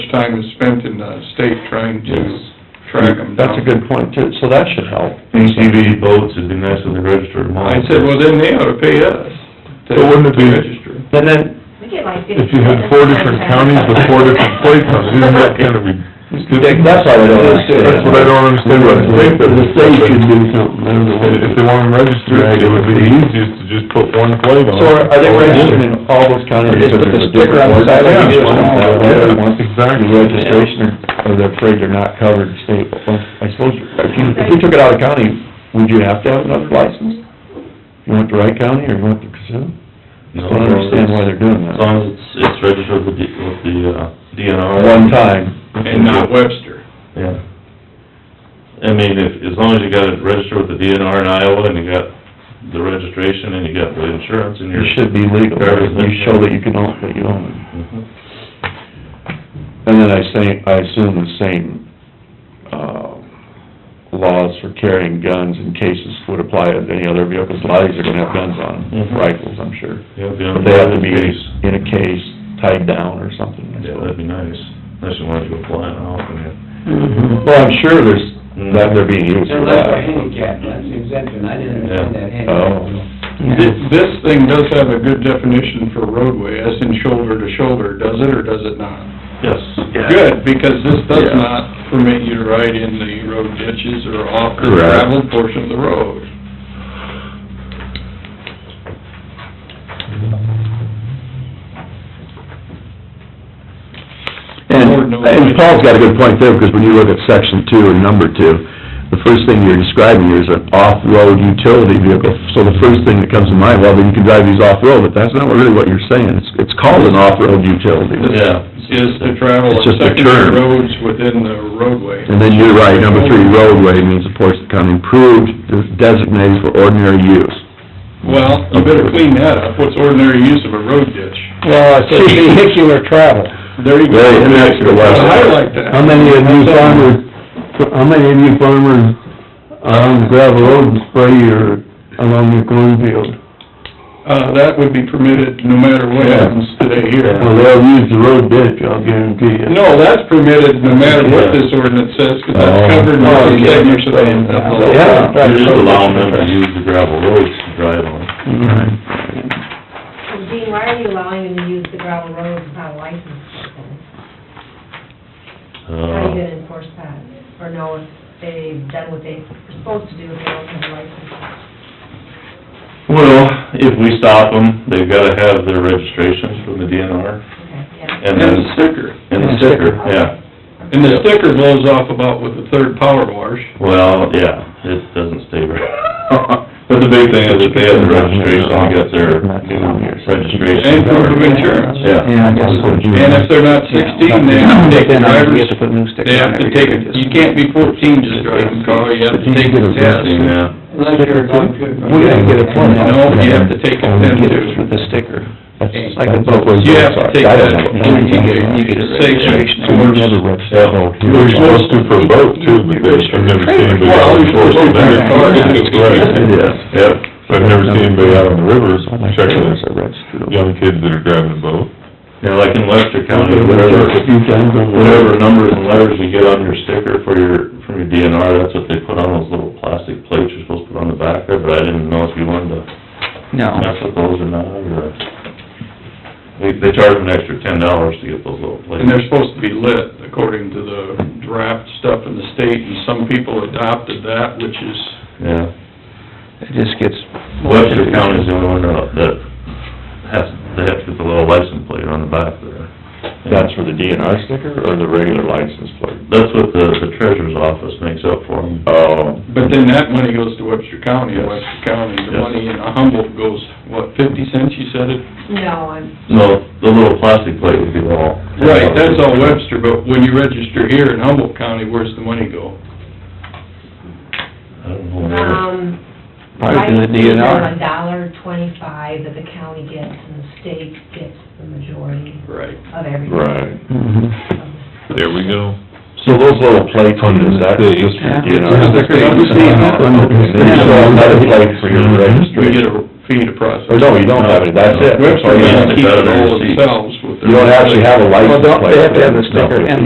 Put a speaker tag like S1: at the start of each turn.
S1: time is spent in the state trying to
S2: Yes.
S1: track them down.
S2: That's a good point too, so that should help.
S3: ATV boats, it'd be nice if they registered them all.
S1: I said, well, then they ought to pay us to
S3: So wouldn't it
S1: to
S3: be-
S1: register.
S2: And then,
S4: We get like fifty.
S3: If you had four different counties with four different plates on it, isn't that kind of ridiculous?
S2: that's what I don't understand.
S3: That's what I don't understand, what I think that...
S2: The state should do something, I don't know what it
S3: If
S2: is.
S3: they want them registered, it would be easiest to just put one plate on it.
S2: So are are they registered in all those counties?
S3: Just put the sticker on the side like you do in all of them.
S2: Yeah,
S3: Exactly.
S2: The registration, or they're afraid they're not covered state, well, I suppose, if you, if you took it out of county, would you have to have another license? You want the right county or you want the Kasuth? I
S5: No,
S2: don't understand why they're doing
S5: As
S2: that.
S5: long as it's, it's registered with the, with the uh, DNR.
S2: One time,
S1: And not Webster.
S5: Yeah. I mean, if, as long as you got it registered with the DNR in Iowa and you got the registration and you got the insurance and
S2: it
S5: you're.
S2: should be legal, you show that you can own, that you own it.
S5: Mhm.
S2: And then I say, I assume the same, uh, laws for carrying guns and cases would apply to any other vehicles. A lot of these are gonna have guns on, them,
S1: Mm-hmm.
S5: Mhm.
S2: rifles, I'm sure.
S5: Yeah, be on
S2: But they have to
S5: the
S2: be
S5: case.
S2: in a case, tied down or something. I
S5: Yeah,
S2: suppose.
S5: that'd be nice, unless you wanted to go flying off and you.
S2: Well, I'm sure there's,
S1: Mm-hmm.
S2: that they're being used
S6: They're
S2: for
S6: left for
S2: that.
S6: handicap, that's the exemption, I didn't understand that handicap.
S2: Oh.
S1: This, this thing does have a good definition for roadway, as in shoulder to shoulder, does it or does it not?
S5: Yes.
S1: Good, because this does
S2: Yeah.
S1: not permit you to ride in the road ditches or off the
S2: Correct.
S1: gravel portion of the road.
S7: And, and Paul's got a good point there, because when you look at section two and number two, the first thing you're describing here is an off-road utility vehicle. So the first thing that comes to mind, well, then you can drive these off-road, but that's not really what you're saying. It's, it's called an off-road utility.
S5: Yeah.
S1: Is to travel
S7: It's just a
S1: secondary
S7: term.
S1: roads within the roadway.
S7: And then you're right, number three, roadway means, of course, become improved, designated for ordinary use.
S1: Well, you better clean that up, what's ordinary use of a road ditch?
S2: Well,
S7: said
S2: vehicular travel.
S1: There you go.
S7: Right, and that's the last-
S1: I like that.
S2: How many of you farmers, how many of you farmers on gravel road spray your, along your cornfield?
S1: Uh, that would be permitted no matter what happens today here.
S2: Well, they'll use the road ditch, I'll guarantee you.
S1: No, that's permitted no matter what this ordinance says, 'cause that's
S2: Oh.
S1: covered
S2: Oh,
S1: in the
S2: yeah.
S1: section of the law.
S2: Yeah.
S5: You're just allowing them to use the gravel roads to drive on.
S4: Dean, why are you allowing them to use the gravel roads without a license? plate? How
S3: Oh.
S4: are you
S5: Uh,
S4: gonna enforce that? Or know if they've done what they were supposed to do if they don't have a license?
S5: Well, if we stop them, they've gotta have their registration from the DNR
S4: Okay, yeah.
S5: and
S1: And
S5: then,
S1: the sticker,
S5: and the sticker, yeah.
S1: and the sticker blows off about with the third power wash.
S5: Well, yeah, it doesn't stay right. But the big thing is if they have the registration, they got their new registration.
S1: And proof of insurance.
S5: Yeah.
S2: I guess so.
S1: And if they're not sixteen, they have to take the driver's, they have to take, a- you can't be fourteen just driving a car, you have to take a test.
S5: Yeah.
S6: Unless you're going to.
S2: We're gonna get a permit.
S1: No, you have to take a test too.
S2: the sticker. That's
S1: Like
S2: like a boat.
S1: You have to take
S2: I
S1: that,
S2: don't know.
S1: you get, you get a section.
S2: So we never read that.
S3: They're supposed to for a boat too, but they, I've never seen anybody out on the force.
S7: Yes.
S3: Yep, so I've never seen anybody out on the rivers checking
S2: Checkers
S3: it.
S2: are registered.
S3: Young kids that are driving a boat.
S5: Now, like in Webster County, whatever,
S2: A few times over there.
S5: whatever numbers and letters you get on your sticker for your, from your DNR, that's what they put on those little plastic plates you're supposed to put on the back there, but I didn't know if you wanted to mess with those or not, or... They, they charge them an extra ten dollars to get those little plates.
S1: And they're supposed to be lit according to the draft stuff in the state, and some people adopted that, which is,
S5: Yeah.
S2: It just gets.
S5: Webster County's the only one that that has, they have to get the little license plate on the back there.
S2: That's for the DNR sticker or the regular license plate?
S5: That's what the, the treasurer's office makes up for them.
S2: Oh.
S1: but then that money goes to Webster County, and Webster County, the
S5: Yes.
S1: money in Humboldt goes, what, fifty cents, you said it?
S4: No, I'm,
S5: No, the little plastic plate would be all.
S1: Right, that's all Webster, but when you register here in Humboldt County, where's the money go?
S5: I don't know where.
S4: um.
S2: Probably to the
S4: license plate
S2: DNR.
S4: are A dollar twenty-five that the county gets and the state gets the majority
S1: Right.
S4: of everything.
S3: Right. There we go.
S2: So those little plates on the back, just, you know.
S3: Yeah.
S2: There's another plate for your
S1: Mm-hmm. We get
S2: registration.
S1: a fee to process.
S2: Or no, you don't have it, that's it.
S1: Webster
S5: Oh,
S2: That's all you
S1: doesn't
S2: have.
S1: keep it all themselves with their...
S2: You don't actually have a license plate. They have to have the sticker